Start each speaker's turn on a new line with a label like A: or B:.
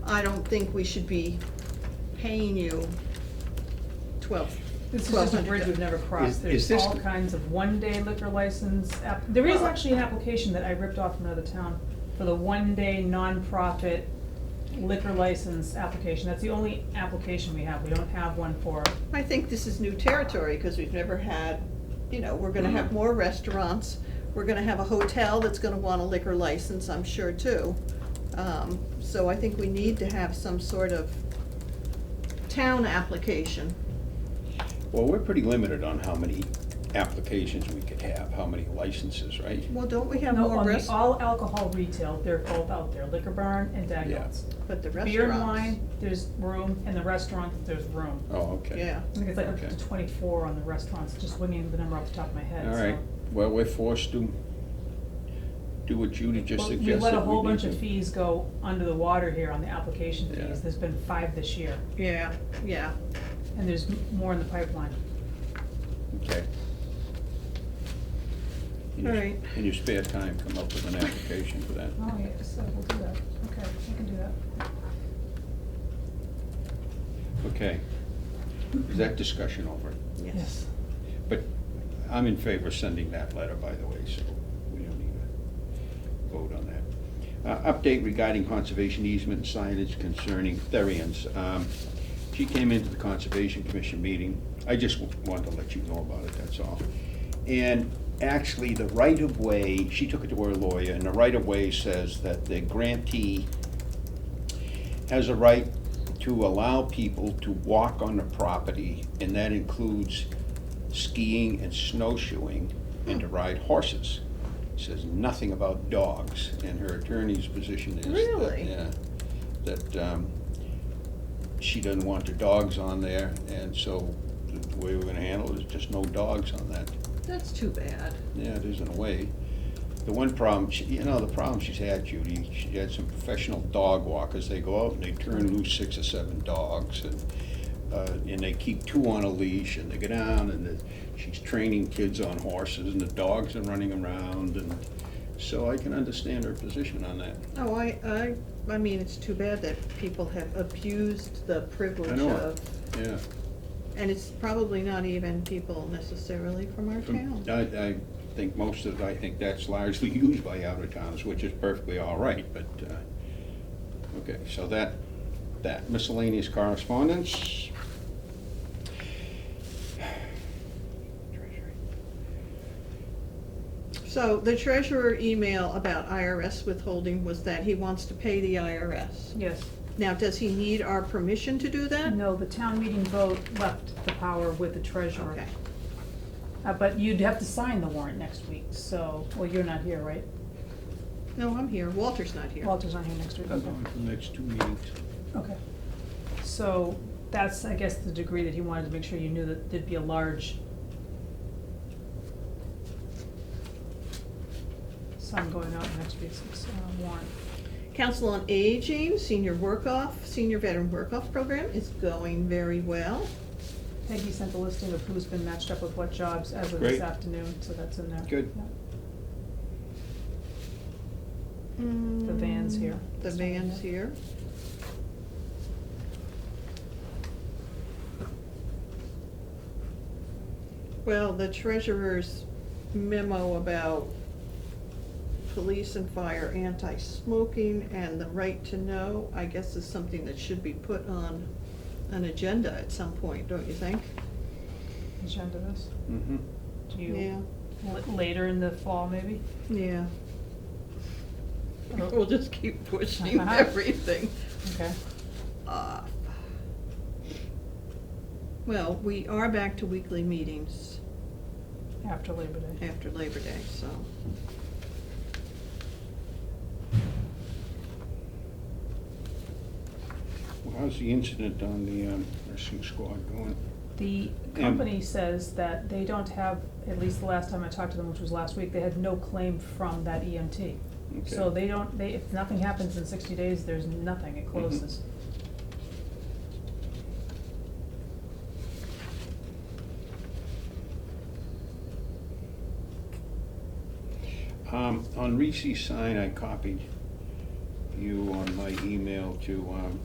A: I don't think we should be paying you twelve,
B: This is
A: twelve
B: just a
A: hundred.
B: bridge we've never crossed.
C: Is-
B: There's
C: is this- uh,
B: all kinds of one-day liquor license, app- there is actually an application that I ripped off from another town for the one-day nonprofit liquor license application. That's the only application we have. We don't have one for,
A: I think this is new territory, because we've never had, you know, we're gonna
B: Mm-hmm.
A: have more restaurants, we're gonna have a hotel that's gonna want a liquor license, I'm sure, too. Um, So I think we need to have some sort of town application.
C: Well, we're pretty limited on how many applications we could have, how many licenses, right?
A: Well, don't we have
B: no,
A: more
B: on the
A: rest,
B: all alcohol retail, they're both out there, Liquor Barn and Dagnalls.
A: but the restaurants?
B: Beer and wine, there's room, and the restaurant, there's room.
C: Oh, okay.
A: Yeah,
B: I think it's like up
C: Okay.
B: to twenty-four on the restaurants, just winging the number off the top of my head,
C: All
B: so.
C: right, well, we're forced to do what Judy just
B: Well,
C: suggested.
B: We let a whole
C: need
B: bunch
C: to.
B: of fees go under the water here on the application
C: Yeah.
B: fees. There's been five this year,
A: yeah, yeah.
B: and there's m- more in the pipeline.
C: Okay. In your-
A: All right.
C: In your spare time, come up with an application for that.
B: Oh, yeah, so we'll do that. Okay, we can do that.
C: Okay. Is that discussion over?
B: Yes.
C: But I'm in favor of sending that letter, by the way, so we don't need a vote on that. Uh, Update regarding conservation easement signage concerning Therians. Um, She came into the Conservation Commission meeting. I just wa- wanted to let you know about it, that's all. And actually, the right-of-way, she took it to her lawyer, and the right-of-way says that the grantee has a right to allow people to walk on the property, and that includes skiing and snowshoeing, and to ride horses. Says nothing about dogs, and her attorney's position is that,
A: Really?
C: yeah, that, um, she doesn't want the dogs on there, and so the way we're gonna handle it is just no dogs on that.
A: That's too bad.
C: Yeah, it is in a way. The one problem, she- you know, the problem she's had, Judy, she had some professional dog walkers, they go out and they turn loose six or seven dogs and, uh, and they keep two on a leash and they go down and the- she's training kids on horses and the dogs are running around and, so I can understand her position on that.
A: Oh, I, I, I mean, it's too bad that people have abused the privilege
C: know it.
A: of,
C: Yeah,
A: and it's probably not even people necessarily from our town.
C: I, I think most of, I think that's largely used by out of towns, which is perfectly all right, but, uh, okay, so that, that miscellaneous correspondence. Treasury.
A: So the treasurer email about IRS withholding was that he wants to pay the IRS.
B: Yes.
A: Now, does he need our permission to do that?
B: No, the town meeting vote left the power with the treasurer.
A: Okay,
B: Uh, but you'd have to sign the warrant next week, so, well, you're not here, right?
A: no, I'm here, Walter's not here.
B: Walter's not here next week,
C: That's
B: okay.
C: on for the next two meetings.
B: Okay. So that's, I guess, the degree that he wanted to make sure you knew that there'd be a large sum going out in next week's uh, warrant.
A: Council on Aging, senior work-off, senior veteran work-off program is going very well.
B: Peggy sent the listing of who's been matched up with what jobs as of
C: Great.
B: this afternoon, so that's in there.
C: Good.
B: Yeah.
A: The
B: van's here.
A: The van's here. Well, the treasurer's memo about police and fire anti-smoking and the right to know, I guess is something that should be put on an agenda at some point, don't you think?
B: Agenda this,
C: Mm-hmm.
B: do
A: Yeah,
B: you, l- later in the fall, maybe?
A: yeah.
B: Oh.
A: We'll just keep pushing everything.
B: Okay.
A: off. Well, we are back to weekly meetings
B: After Labor Day.
A: after Labor Day, so.
C: Well, how's the incident on the um, nursing squad going?
B: The
C: Um,
B: company says that they don't have, at least the last time I talked to them, which was last week, they had no claim from that EMT. So
C: Okay.
B: they don't, they, if nothing happens in sixty days, there's nothing, it closes.
C: Um, on Reese's sign, I copied you on my email to, um,